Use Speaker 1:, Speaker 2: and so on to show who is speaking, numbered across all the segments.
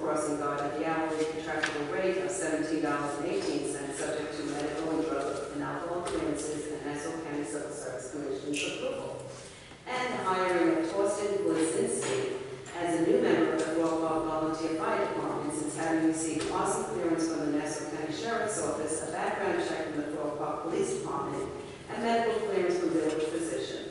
Speaker 1: crossing guard at the hourly contractual rate of seventeen dollars and eighteen cents, subject to medical and drug and alcohol clearances and Nassau County Civil Service Commission's approval. And the hiring of Torsten Blazinski as a new member of the Walpole Volunteer Fire Department since having received awesome clearance from the Nassau County Sheriff's Office, a background check from the Thorpe Park Police Department, and medical clearance from village physician.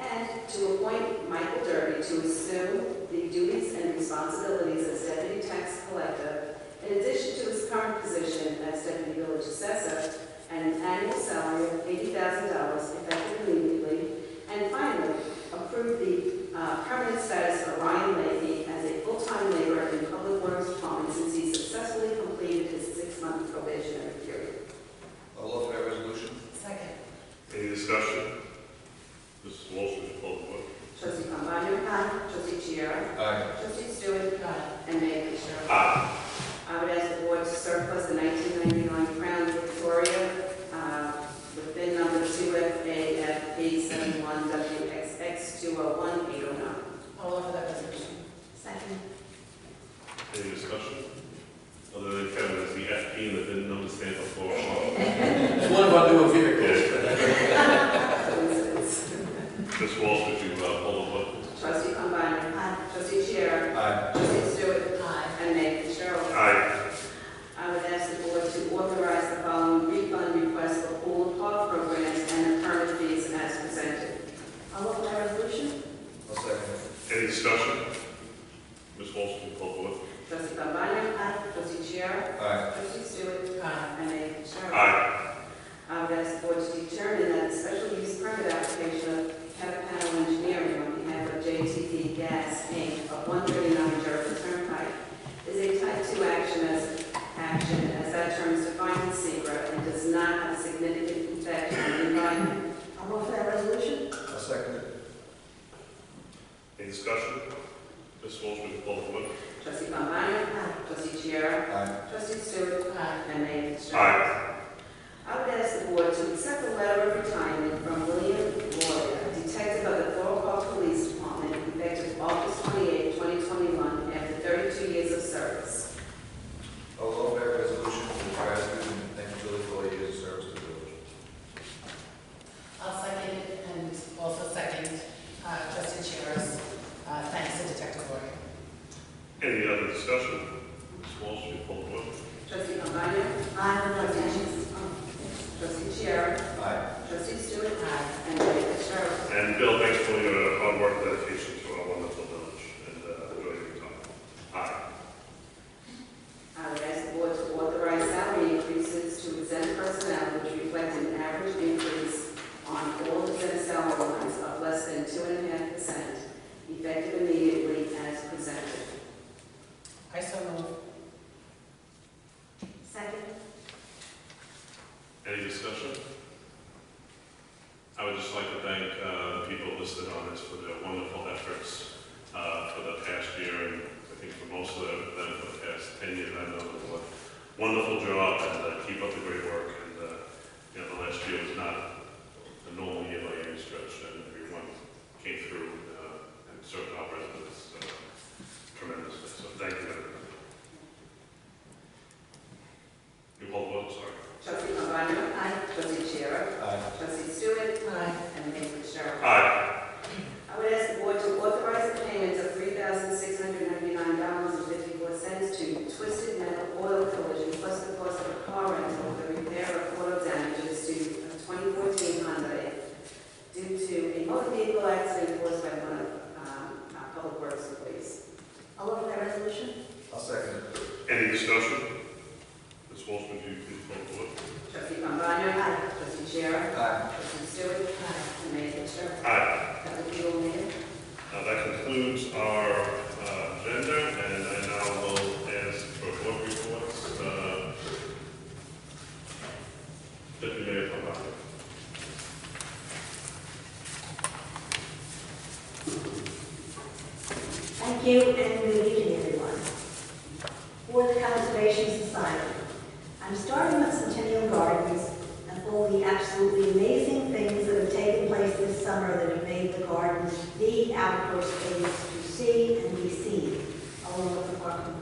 Speaker 1: And to appoint Michael Derby to assume the duties and responsibilities as deputy tax collector in addition to his current position as deputy village assessor and an annual salary of eighty thousand dollars effective immediately. And finally, approve the uh, permanent status for Ryan Leahy as a full-time laborer in public works department since he successfully completed his six-month probationary period.
Speaker 2: All over that resolution?
Speaker 3: Second.
Speaker 4: Any discussion? Mrs. Walsh, would you call the vote?
Speaker 1: Trustee Cambani, aye. Trustee Chiara,
Speaker 2: Aye.
Speaker 1: trustee Stewart, uh,
Speaker 3: Aye.
Speaker 1: and Mayor Fisher.
Speaker 4: Aye.
Speaker 1: I would ask the board to surplus the 1999 Crown Victoria uh, with bin number 2FAF871WXX201809.
Speaker 3: All over that resolution.
Speaker 1: Second.
Speaker 4: Any discussion? Other than Kevin, is the FP and the VIN number stand up for a while?
Speaker 2: It's one of our newer vehicles.
Speaker 1: Coincidence.
Speaker 4: Mrs. Walsh, would you uh, call the vote?
Speaker 1: Trustee Combiner? Aye. Trustee Chair?
Speaker 2: Aye.
Speaker 1: Trustee Stewart?
Speaker 3: Aye.
Speaker 1: And Mayor Fitzgerald.
Speaker 4: Aye.
Speaker 1: I would ask the board to authorize the following refund request for pool and park programs and the permit fees as presented. I'll offer that resolution.
Speaker 2: I'll second it.
Speaker 4: Any discussion? Mrs. Walsh, would you call the vote?
Speaker 1: Trustee Combiner? Aye. Trustee Chair?
Speaker 2: Aye.
Speaker 1: Trustee Stewart?
Speaker 3: Aye.
Speaker 1: And Mayor Fitzgerald.
Speaker 4: Aye.
Speaker 1: I would ask the board to determine that the special use permit application of Capital Engineering on behalf of JTP Gas Inc. of 139 Jericho Turnpike is a type 2 action as, action as that term is defined in SECR and does not have significant effect on the environment. I'll offer that resolution.
Speaker 2: I'll second it.
Speaker 4: Any discussion? Mrs. Walsh, would you call the vote?
Speaker 1: Trustee Pombana. Trustee Chiara.
Speaker 2: Aye.
Speaker 1: Trustee Stewart.
Speaker 3: Aye.
Speaker 1: And Mayor Fitzgerald.
Speaker 4: Aye.
Speaker 1: I would ask the board to accept the letter of retirement from William Lloyd, a detective of the Thorpe Park Police Department, effective August 28, 2021, after 32 years of service.
Speaker 2: All over that resolution for gratitude and thank you, Billy, for all your years of service to the village.
Speaker 3: I'll second it and also second uh, trustee Chair's uh, thanks to Detective Lori.
Speaker 4: Any other discussion? Mrs. Walsh, would you call the vote?
Speaker 1: Trustee Cambani? Aye. Trustee Chair?
Speaker 2: Aye.
Speaker 1: Trustee Stewart?
Speaker 3: Aye.
Speaker 1: And Mayor Fitzgerald.
Speaker 4: And Bill, thanks for your hard work, dedication to our wonderful village, and uh, enjoy your time. Aye.
Speaker 1: I would ask Uh, the board to authorize salary increases to exempt personnel which reflect an average increase on all exempt salary lines of less than two and a half percent, effective immediately as presented.
Speaker 3: I so move.
Speaker 1: Second.
Speaker 4: Any discussion? I would just like to thank uh, the people listed on this for their wonderful efforts uh, for the past year, and I think for most of them, for the past 10 years, I know it was a wonderful job, and uh, keep up the great work. And, uh, you know, the last year was not a normal year by any stretch, and everyone came through uh, and served our residents uh, tremendously, so thank you. everyone. You call the vote, sorry.
Speaker 1: Trustee Cambani? Aye. Trustee Chair?
Speaker 2: Aye.
Speaker 1: Trustee Stewart?
Speaker 3: Aye.
Speaker 1: And Mayor Fitzgerald.
Speaker 4: Aye.
Speaker 1: I would ask the board to authorize the payment of three thousand six hundred ninety-nine dollars and fifty-four cents to Twisted Metal Oil Collision plus the cost of a car rental for the repair of auto damages to a twenty fourteen Hyundai due to a motor vehicle accident caused by one of, um, our public works employees. I'll offer that resolution.
Speaker 2: I'll second it.
Speaker 4: Any discussion? Ms. Walsh, would you please call the board?
Speaker 1: Trustee Cambani? Aye. Trustee Chair?
Speaker 2: Aye.
Speaker 1: Trustee Stewart?
Speaker 3: Aye.
Speaker 1: And Mayor Fitzgerald.
Speaker 4: Aye.
Speaker 1: That would be all, Mayor.
Speaker 4: Now, that concludes our uh, agenda. Uh,